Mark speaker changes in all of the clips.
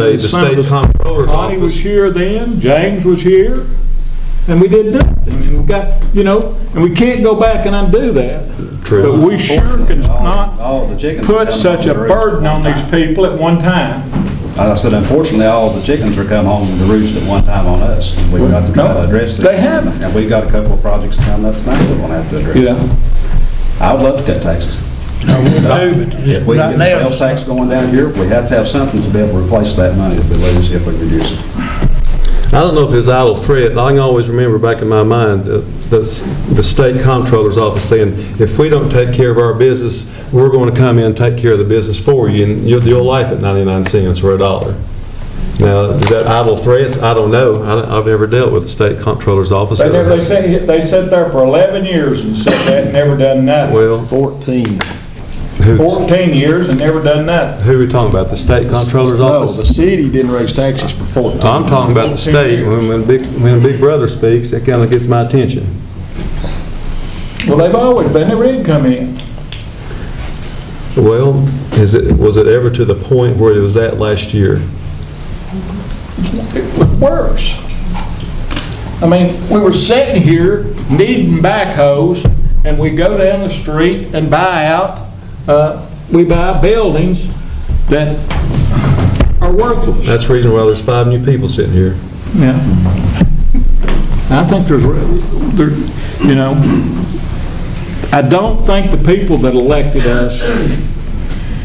Speaker 1: The the state comptroller's
Speaker 2: Connie was
Speaker 1: office.
Speaker 2: here then, James was here, and we did nothing, and we got, you know, and we can't go back and undo that. But we sure can not
Speaker 3: All the chickens. are
Speaker 2: put
Speaker 3: coming
Speaker 2: such a
Speaker 3: home to roost.
Speaker 2: burden on these people at one time.
Speaker 3: I said, unfortunately, all the chickens are coming home to roost at one time on us. and We've got to try to address it.
Speaker 2: They haven't.
Speaker 3: And we've got a couple of projects coming up tonight that we'll have to address. I would love to cut taxes. If we
Speaker 4: Right
Speaker 3: get
Speaker 4: now,
Speaker 3: sales tax going down here, we have to have something to be able to replace that money that we lose if we reduce it.
Speaker 1: I don't know if it's idle threat, I can always remember back in my mind, uh, the the state comptroller's office saying, if we don't take care of our business, we're going to come in and take care of the business for you, and you'll you'll life at 99 cents or a dollar. Now, is that idle threats? I don't know, I- I've never dealt with the state comptroller's office.
Speaker 2: They, never- they sat, they sat there for 11 years and said that, and never done nothing.
Speaker 1: Well,
Speaker 4: 14.
Speaker 1: who's,
Speaker 2: 14 years and never done nothing.
Speaker 1: who are we talking about, the state comptroller's
Speaker 4: No,
Speaker 1: office?
Speaker 4: the city didn't raise taxes for 14.
Speaker 1: I'm talking about the state, when, when Big, when Big Brother speaks, it kind of gets my attention.
Speaker 2: Well, they've always been, they did come in.
Speaker 1: Well, is it, was it ever to the point where it was at last year?
Speaker 2: It was worse. I mean, we were sitting here needing backhoes, and we go down the street and buy out, uh, we buy buildings that are worthless.
Speaker 1: That's the reason why there's five new people sitting here.
Speaker 2: Yeah. I think there's, re- there, you know, I don't think the people that elected us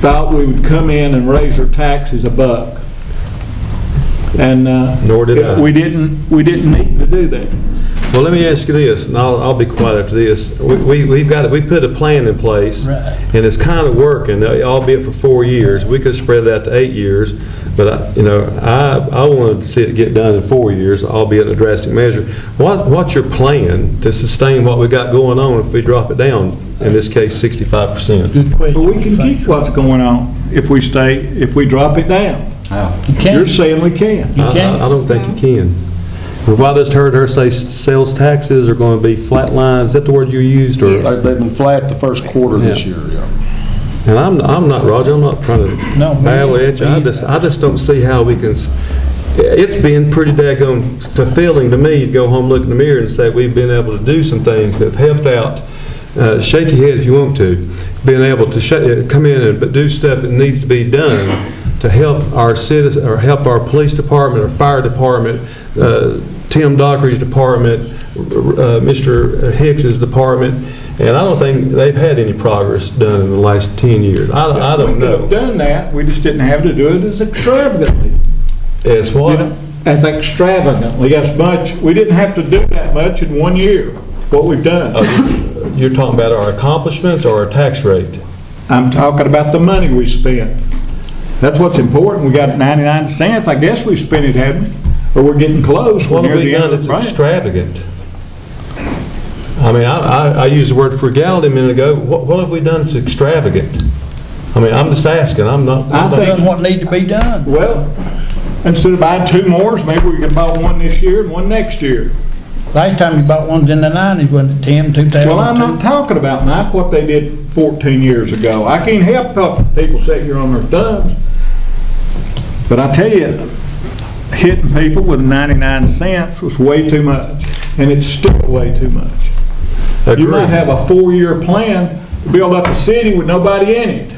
Speaker 2: thought we would come in and raise our taxes a buck. And, uh.
Speaker 1: Nor did I.
Speaker 2: We didn't, we didn't need to do that.
Speaker 1: Well, let me ask you this, and I'll, I'll be quiet after this. We, we- we've got, we put a plan in place, and it's kind of working, albeit for four years. We could spread it out to eight years, but, I- you know, I, I wanted to see it get done in four years, albeit a drastic measure. What, what's your plan to sustain what we got going on if we drop it down, in this case, 65%?
Speaker 2: But we can keep what's going on if we stay, if we drop it down.
Speaker 3: How?
Speaker 2: You're saying we can.
Speaker 1: I- I I don't think you can. Well, If I just heard her say s- sales taxes are going to be flat lines, is that the word you used? or-
Speaker 4: They've they've been flat the first quarter this year, yeah.
Speaker 1: And I'm, I'm not, Roger, I'm not trying to
Speaker 5: No, we-
Speaker 1: battle it. I just, I just don't see how we can, s- it's been pretty daggone fulfilling to me to go home, look in the mirror and say, we've been able to do some things that have helped out. Uh, Shake your head if you want to, being able to sha- uh, come in and but do stuff that needs to be done to help our citizens, or help our police department, our fire department, uh, Tim Dockery's department, uh, Mr. Hicks's department, and I don't think they've had any progress done in the last 10 years. I I don't
Speaker 2: We
Speaker 1: know.
Speaker 2: could have done that, we just didn't have to do it as extravagantly.
Speaker 1: It's
Speaker 2: you
Speaker 1: what?
Speaker 2: know, as extravagantly as much, we didn't have to do that much in one year, what we've done.
Speaker 1: You're talking about our accomplishments or our tax rate?
Speaker 2: I'm talking about the money we spent. That's what's important, we got 99 cents, I guess we spent it, haven't we? Or we're getting close, we're
Speaker 1: What
Speaker 2: near
Speaker 1: have we
Speaker 2: the end
Speaker 1: done
Speaker 2: of
Speaker 1: that's
Speaker 2: the grant.
Speaker 1: extravagant? I mean, I, I, I used the word frugality a minute ago. What, what have we done that's extravagant? I mean, I'm just asking, I'm not.
Speaker 2: I think-
Speaker 5: Done what need to be done.
Speaker 2: Well, instead of buying two mores, maybe we could buy one this year and one next year.
Speaker 5: Last time you bought ones in the nineties, wasn't it, Tim, two
Speaker 2: Well, I'm not
Speaker 5: thousand two?
Speaker 2: talking about, Mike, what they did 14 years ago. I can't help helping people sit here on their thumbs. But I tell you, hitting people with 99 cents was way too much, and it's still way too much. You might have a four-year plan to build up a city with nobody in it.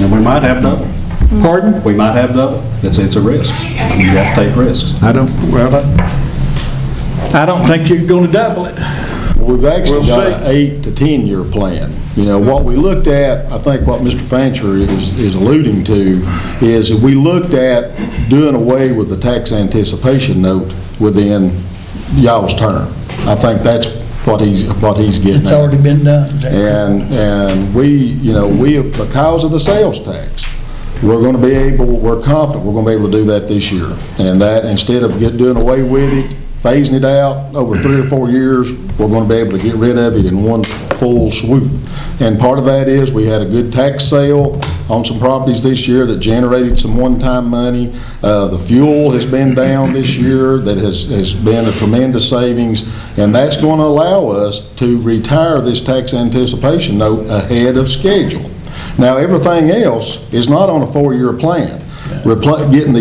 Speaker 3: And we might have double.
Speaker 2: Pardon?
Speaker 3: We might have double. It's, it's a risk. You have to take risks.
Speaker 2: I don't, well, I- I don't think you're going to double it.
Speaker 4: We've
Speaker 2: We'll
Speaker 4: actually got an
Speaker 2: see.
Speaker 4: eight to 10-year plan. You know, what we looked at, I think what Mr. Fancher is is alluding to, is that we looked at doing away with the tax anticipation note within y'all's term. I think that's what he's, what he's getting
Speaker 5: It's
Speaker 4: at.
Speaker 5: already been done. is that-
Speaker 4: And, and we, you know, we, have because of the sales tax, we're going to be able, we're confident, we're going to be able to do that this year. And that, instead of get, doing away with it, phasing it out over three or four years, we're going to be able to get rid of it in one full swoop. And part of that is, we had a good tax sale on some properties this year that generated some one-time money. Uh, The fuel has been down this year, that has, has been a tremendous savings, and that's going to allow us to retire this tax anticipation note ahead of schedule. Now, everything else is not on a four-year plan. repla- getting the